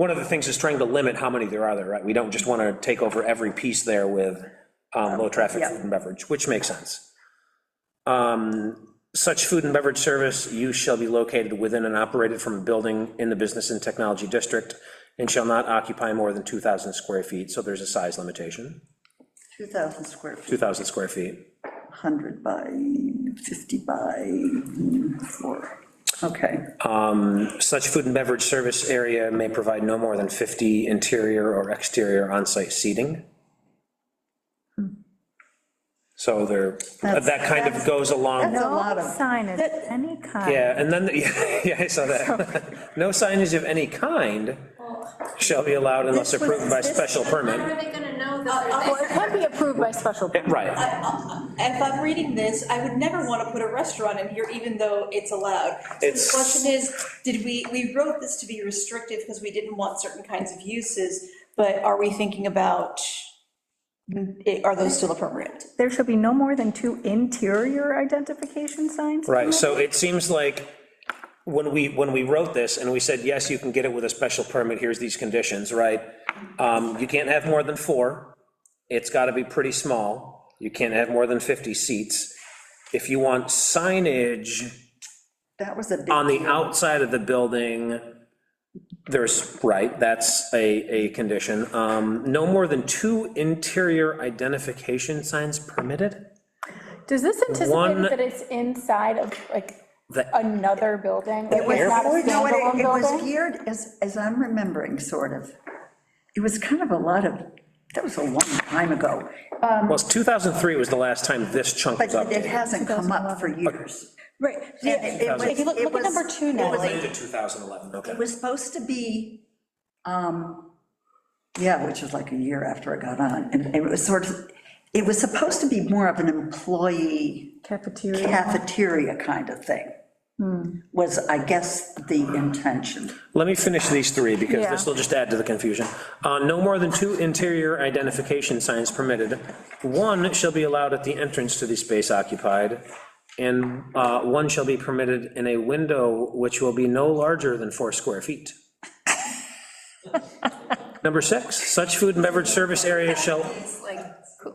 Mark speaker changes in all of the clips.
Speaker 1: one of the things is trying to limit how many there are there, right? We don't just want to take over every piece there with um, low-traffic food and beverage, which makes sense. Um, Such food and beverage service use shall be located within and operated from a building in the business and technology district and shall not occupy more than 2,000 square feet, so there's a size limitation,
Speaker 2: 2,000 square feet,
Speaker 1: 2,000 square feet.
Speaker 2: 100 by 50 by 4. Okay,
Speaker 1: Such food and beverage service area may provide no more than 50 interior or exterior on-site seating. So there, that kind of goes along,
Speaker 2: That's a
Speaker 1: with-
Speaker 2: lot
Speaker 3: No
Speaker 2: of-
Speaker 3: signage of any kind.
Speaker 1: yeah, and then, yeah, I saw that. No signage of any kind shall be allowed unless
Speaker 2: This was-
Speaker 1: approved by
Speaker 2: this-
Speaker 1: special
Speaker 4: How
Speaker 1: permit.
Speaker 4: are they gonna know
Speaker 5: Uh,
Speaker 4: that
Speaker 6: Well,
Speaker 4: they're
Speaker 6: it can be approved by special permit.
Speaker 1: Right,
Speaker 5: If I'm reading this, I would never want to put a restaurant in here, even though it's allowed. So the
Speaker 1: It's-
Speaker 5: question is, did we, we wrote this to be restrictive because we didn't want certain kinds of uses, but are we thinking about, eh, are those still appropriate?
Speaker 3: There should be no more than two interior identification signs.
Speaker 1: right, so it seems like when we, when we wrote this and we said, yes, you can get it with a special permit, here's these conditions, right? Um, You can't have more than four, it's gotta be pretty small, you can't have more than 50 seats. If you want signage
Speaker 2: that was a big.
Speaker 1: on the outside of the building, there's, right, that's a, a condition. Um, No more than two interior identification signs permitted?
Speaker 6: Does this anticipate
Speaker 1: One-
Speaker 6: that it's inside of, like,
Speaker 1: The-
Speaker 6: another building? It
Speaker 2: was-
Speaker 6: not a
Speaker 2: No, it-
Speaker 6: standalone
Speaker 2: It was
Speaker 6: building?
Speaker 2: geared, as, as I'm remembering, sort of, it was kind of a lot of, that was a long time ago,
Speaker 1: Well, 2003 was the last time this chunk
Speaker 2: but
Speaker 1: was updated.
Speaker 2: it hasn't come up for years.
Speaker 5: Right,
Speaker 2: And it- it was-
Speaker 5: If you look-
Speaker 2: it
Speaker 5: look at
Speaker 2: was-
Speaker 5: number two
Speaker 2: it
Speaker 5: now.
Speaker 2: was-
Speaker 1: Late to 2011, okay.
Speaker 2: It was supposed to be, um, yeah, which was like a year after I got on, and it was sort of, it was supposed to be more of an employee
Speaker 3: Cafeteria.
Speaker 2: cafeteria kind of thing, was, I guess, the intention.
Speaker 1: Let me finish these three, because
Speaker 6: Yeah.
Speaker 1: this will just add to the confusion. Uh, No more than two interior identification signs permitted. One shall be allowed at the entrance to the space occupied, and uh, one shall be permitted in a window which will be no larger than four square feet. Number six, such food and beverage service area shall,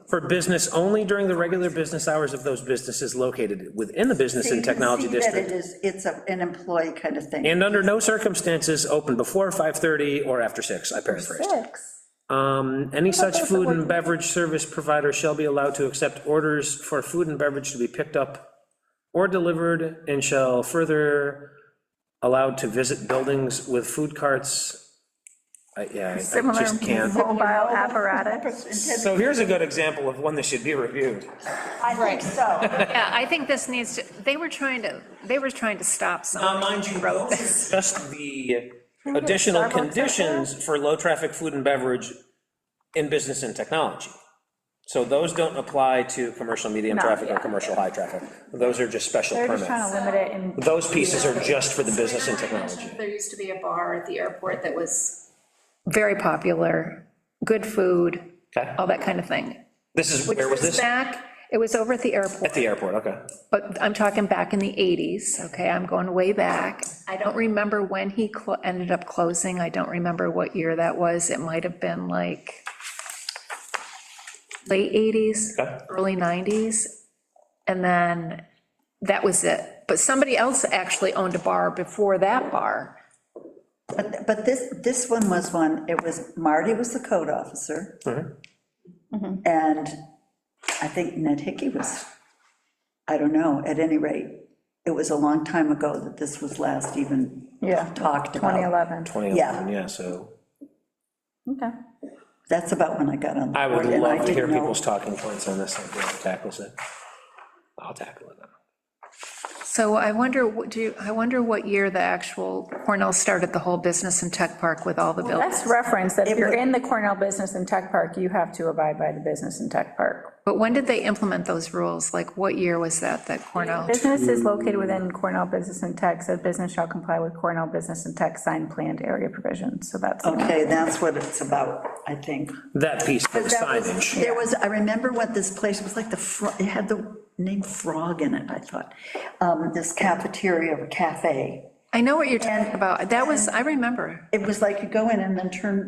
Speaker 1: for business only during the regular business hours of those businesses located within the business
Speaker 2: So you
Speaker 1: and
Speaker 2: can
Speaker 1: technology
Speaker 2: see that
Speaker 1: district.
Speaker 2: It is, it's a- an employee kind of thing.
Speaker 1: And under no circumstances open before 5:30 or after 6, I paraphrased.
Speaker 6: Six.
Speaker 1: Um, Any such food and beverage service provider shall be allowed to accept orders for food and beverage to be picked up or delivered, and shall further allowed to visit buildings with food carts. I- Yeah, I- I
Speaker 3: Similar
Speaker 1: just can't.
Speaker 3: mobile apparatus.
Speaker 1: So here's a good example of one that should be reviewed.
Speaker 5: Right.
Speaker 4: Yeah, I think this needs to, they were trying to, they were trying to stop some.
Speaker 1: Now, Uh, mind you, though, just the additional conditions for low-traffic food and beverage in business and technology. So those don't apply to commercial medium
Speaker 3: No,
Speaker 1: traffic or
Speaker 3: yeah.
Speaker 1: commercial high traffic. Those are just special
Speaker 3: They're just trying
Speaker 1: permits.
Speaker 3: to limit it in,
Speaker 1: Those pieces are just for the business and technology.
Speaker 4: There used to be a bar at the airport that was very popular, good food,
Speaker 1: Okay.
Speaker 4: all that kind of thing.
Speaker 1: This is,
Speaker 4: Which
Speaker 1: where was this?
Speaker 4: Back, it was over at the airport.
Speaker 1: At the airport, okay.
Speaker 4: But I'm talking back in the 80s, okay, I'm going way back. I don't remember when he clo- ended up closing, I don't remember what year that was, it might have been like late 80s,
Speaker 1: Okay.
Speaker 4: early 90s, and then that was it. But somebody else actually owned a bar before that bar.
Speaker 2: But, but this, this one was one, it was, Marty was the code officer.
Speaker 1: Uh-huh.
Speaker 2: And I think Ned Hickey was, I don't know, at any rate, it was a long time ago that this was last even
Speaker 3: yeah,
Speaker 2: talked about.
Speaker 3: 2011.
Speaker 1: 2011, yeah, so
Speaker 3: Okay.
Speaker 2: That's about when I got on. the
Speaker 1: I would
Speaker 2: board, and
Speaker 1: love to hear
Speaker 2: didn't know.
Speaker 1: people's talking points on this, I'll tackle it. I'll tackle it.
Speaker 4: So I wonder, what do, you- I wonder what year the actual Cornell started the whole business and tech park with all the buildings.
Speaker 3: That's reference, that if you're
Speaker 2: would-
Speaker 3: in the Cornell Business and Tech Park, you have to abide by the Business and Tech Park.
Speaker 4: But when did they implement those rules? Like, what year was that, that Cornell?
Speaker 3: Business is located within Cornell Business and Tech, said business shall comply with Cornell Business and Tech sign planned area provisions, so that's.
Speaker 2: Okay, that's what it's about, I think.
Speaker 1: That piece, the
Speaker 2: That was-
Speaker 1: signage.
Speaker 2: There was, I remember what this place was like, the, fro- it had the name Frog in it, I thought. Um, This cafeteria or cafe.
Speaker 4: I know what you're talking about. That was, I remember.
Speaker 2: It was like you go in and then turn